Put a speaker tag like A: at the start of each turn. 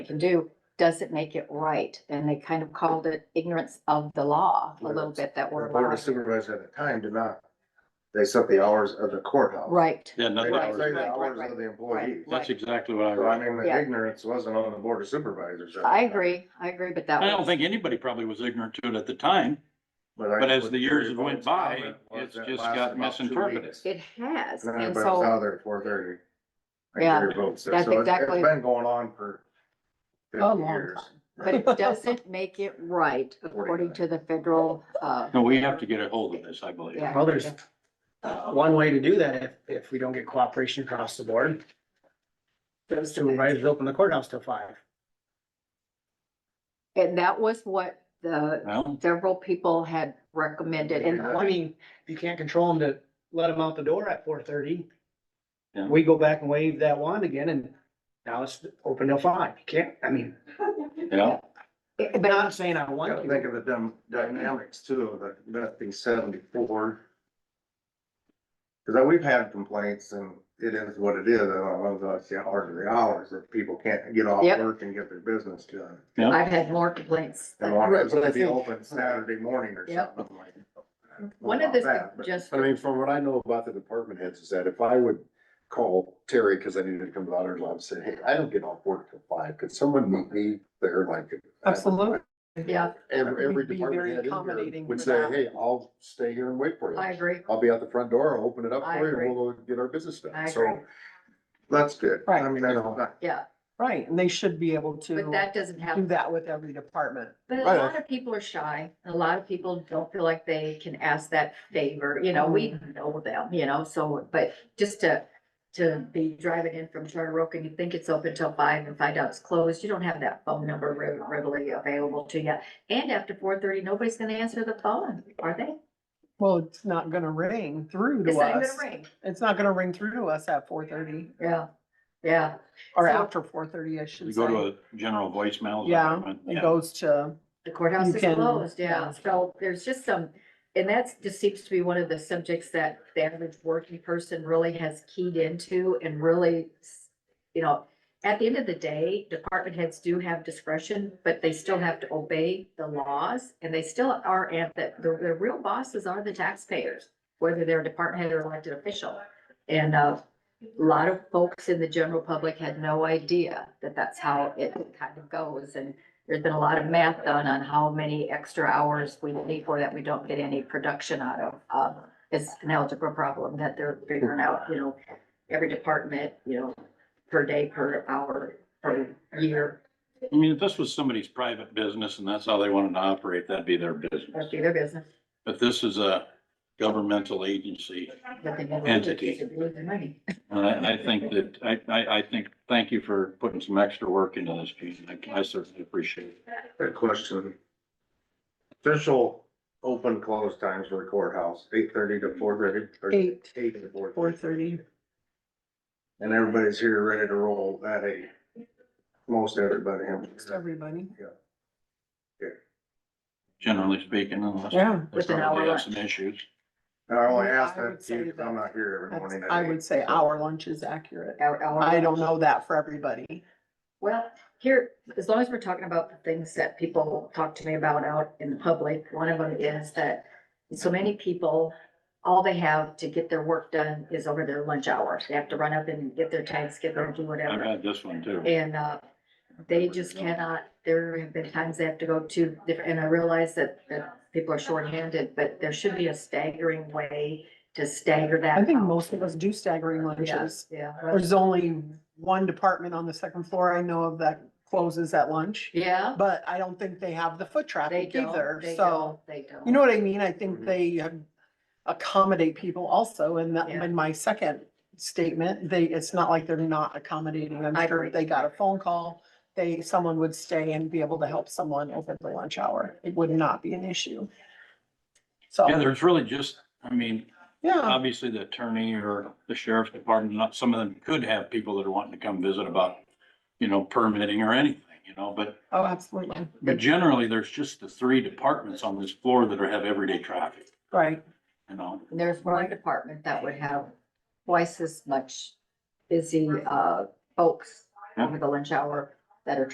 A: we can do doesn't make it right. And they kind of called it ignorance of the law a little bit that
B: The
A: we're.
B: board of
A: allowing.
B: supervisors at the time did not, they set the hours of the courthouse.
A: Right,
C: Yeah,
B: They
C: nothing,
A: Right.
B: didn't say the
A: Right, right,
B: hours of the employees.
A: right,
C: that's
A: right.
C: exactly what I
B: So I
C: read.
B: mean,
A: Yeah.
B: the ignorance wasn't on the board of supervisors. at the
A: I
B: time.
A: agree, I agree, but that
C: I don't
A: was,
C: think anybody probably was ignorant to it at the time,
B: I-
C: but as
B: what
C: the years
B: Terry
C: went
B: Bowen's
C: by,
B: comment was
C: it's
B: that
C: just
B: lasted
C: got
B: about two
C: misinterpreted.
B: weeks.
A: it has.
B: And
A: And
B: everybody was out
A: so,
B: there at four thirty.
A: Yeah,
B: That's
A: that's exactly-
B: It's been going on for
A: A
B: fifty
A: long
B: years.
A: time. but it doesn't make it right according to the federal, uh,
C: No, we have to get a hold of this, I believe.
A: yeah.
D: Well, there's uh, one way to do that if, if we don't get cooperation across the board. Those supervisors open the courthouse till five.
A: And that was what the
C: Well,
A: several people had recommended and
D: I
A: one,
D: mean, if you can't control them to let them out the door at four thirty.
C: Yeah.
D: We go back and wave that wand again and now it's open till five. You can't, I mean,
C: yeah,
D: but
A: but
D: not saying I want
B: Gotta think
D: to.
B: of the dym- dynamics too, of the, that being seventy-four. Cause I- we've had complaints and it is what it is, and I love the, the hours of the hours, that people can't get off
A: Yep.
B: work and get their business done.
C: yeah.
A: I've had more complaints.
B: And wanted
A: But I
B: to be
A: think-
B: open Saturday morning or
A: Yep.
B: something like. that.
A: One of
B: About
A: the
B: that, but-
A: just,
E: I mean, from what I know about the department heads is that if I would call Terry, cause I needed to come to the auditor's office, say, hey, I don't get off work till five, could someone meet me there like?
D: Absolutely.
A: yeah,
E: Every, every
D: We'd be
E: department
D: very
E: head in
D: accommodating
E: here would
D: for
E: say,
D: that.
E: hey, I'll stay here and wait for
A: I
E: you.
A: agree.
E: I'll be out the front door, I'll open it up
A: I
E: for you,
A: agree.
E: and we'll go get our business
A: I
E: done, so.
A: agree.
B: That's good. I
F: Right.
B: mean, that's not,
A: Yeah,
F: Right, and they should be able
A: but
F: to
A: that doesn't
F: do
A: happen.
F: that with every department.
A: But a
E: Right.
A: lot of people are shy. and A lot of people don't feel like they can ask that favor, you know, we know them, you know, so, but just to, to be driving in from Charter Oak and you think it's open till five and find out it's closed, you don't have that phone number re- readily available to you. And after four thirty, nobody's gonna answer the phone, are they?
F: Well, it's not gonna ring through
A: It's
F: to
A: not even
F: us.
A: gonna ring.
F: It's not gonna ring through to us at four thirty
A: Yeah, yeah.
F: or
A: So-
F: after four thirty, I
C: You
F: should
C: go to
F: say.
C: a general voicemail. is that
F: Yeah,
C: what I meant?
F: It goes to,
A: The courthouse
F: You
A: is
F: can-
A: closed, yeah,
F: yeah.
A: so there's just some, and that's, just seems to be one of the subjects that the average working person really has keyed into and really, you know, at the end of the day, department heads do have discretion, but they still have to obey the laws, and they still are at the, the, the real bosses are the taxpayers, whether they're a department head or elected official. And, uh, a lot of folks in the general public had no idea that that's how it kind of goes, and there's been a lot of math done on how many extra hours we need for that we don't get any production out of. Um, it's an algebra problem that they're figuring out, you know, every department, you know, per day, per hour, per year,
C: I mean, if this was somebody's private business and that's how they wanted to operate, that'd be their business.
A: that'd be their business.
C: But this is a governmental agency.
A: but they never-
C: Entity.
A: they lose their money.
C: And I, I think that, I, I, I think, thank you for putting some extra work into this, Gene. I- I certainly appreciate it.
B: that question. Official open close times for the courthouse, eight thirty to four thirty.
F: Eight.
B: Eight to four.
F: four thirty.
B: And everybody's here ready to roll at eight. Most everybody. I'm
F: Just everybody.
C: generally speaking, unless.
F: Yeah.
C: They
A: With an
C: probably
A: hour
C: have some issues.
B: I only ask
F: I would
B: that
F: say
B: because
F: that-
B: I'm not here every
F: That's-
B: morning. at
F: I
B: eight.
F: would say
B: So-
F: our lunch is accurate.
A: Our- our-
F: I don't know that for everybody.
A: Well, here, as long as we're talking about the things that people talk to me about out in the public, one of them is that so many people, all they have to get their work done is over their lunch hours. They have to run up and get their tags, get their, do
C: I've
A: whatever.
C: had this one too.
A: And, uh, they just cannot, there have been times they have to go to different, and I realize that, that people are shorthanded, but there should be a staggering way to stagger that.
F: I think
A: out.
F: most of us do staggering lunches.
A: Yeah,
F: There's only one department on the second floor I know of that closes at lunch,
A: yeah,
F: but I don't think they have the foot
A: they
F: traffic
A: don't,
F: either,
A: they
F: so.
A: don't, they don't.
F: You know what I mean? I think
A: Mm-hmm.
B: Mhm.
F: they um, accommodate people also, and that,
A: Yeah.
F: in my second statement, they, it's not like they're not accommodating. I'm
A: I
F: sure
A: agree.
F: if they got a phone call, they, someone would stay and be able to help someone over the lunch hour. It would not be an issue.
C: Yeah,
F: So,
C: there's really just, I mean,
F: yeah,
C: obviously the attorney or the sheriff's department, not, some of them could have people that are wanting to come visit about, you know, permitting or anything, you know, but,
F: oh, absolutely,
C: but generally, there's just the three departments on this floor that are, have everyday traffic,
F: right.
C: you know?
A: And there's one department that would have twice as much busy, uh, folks over the lunch hour that are